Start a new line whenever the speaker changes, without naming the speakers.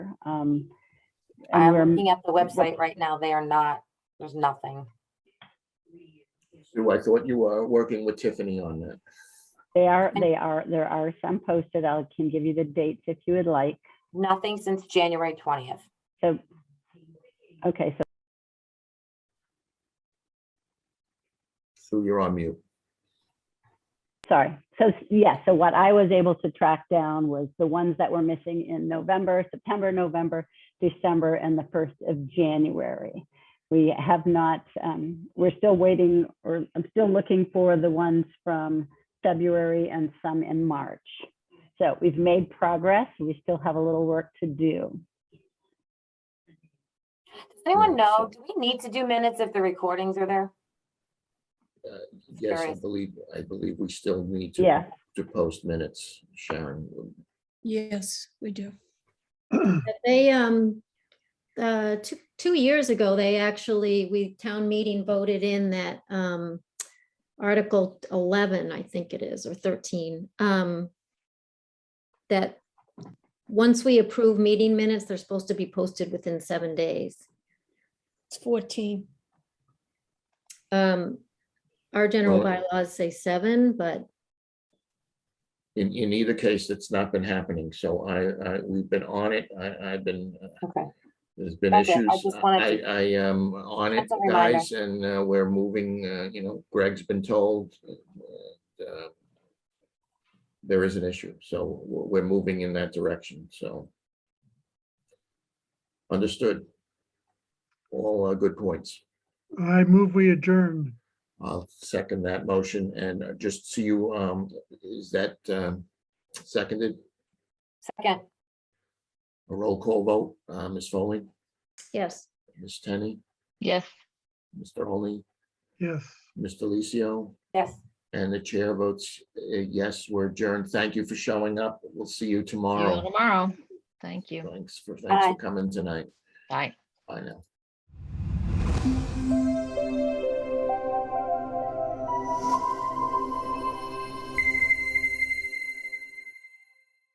Um, and
I'm
we're,
looking at the website right now. They are not, there's nothing.
Sue, I thought you were working with Tiffany on that.
they are, they are, there are some posted. I can give you the dates if you would like.
Nothing since January twentieth.
So, okay, so
Sue, you're on mute.
sorry. So, s- yeah, so what I was able to track down was the ones that were missing in November, September, November, December, and the first of January. We have not, um, we're still waiting, or I'm still looking for the ones from February and some in March. So we've made progress. We still have a little work to do.
Does anyone
Yeah,
know,
so-
do we need to do minutes if the recordings are there?
Yes, I
Sorry.
believe, I believe we still need to.
Yeah,
To post minutes, Sharon.
Yes, we do.
But They, um, uh, two, two years ago, they actually, we, town meeting voted in that, um, Article eleven, I think it is, or thirteen, um, that once we approve meeting minutes, they're supposed to be posted within seven days.
It's 14.
Um, our general
Well-
bylaws say seven, but
In, in either case, it's not been happening, so I, I, we've been on it, I, I've been. uh,
Okay.
There's been
That's it. I
issues.
just
I,
wanted
I am on it,
That's a reminder.
guys, and uh, we're moving, uh, you know, Greg's been told. uh, uh, There is an issue, so we're we're moving in that direction, so. Understood. All uh, good points.
I move we adjourn.
I'll second that motion and uh, just see you, um, is that um, seconded?
Second,
A roll call vote, uh, Ms. Foley,
yes.
Ms. Tenney,
Yes.
Mr. Holly,
Yes.
Mr. Lucio,
yes.
and the chair votes, uh, yes, we're adjourned. Thank you for showing up. We'll see you
See you all
tomorrow.
tomorrow. Thank you.
Thanks for, thanks
Bye.
for coming tonight.
Bye.
Bye now.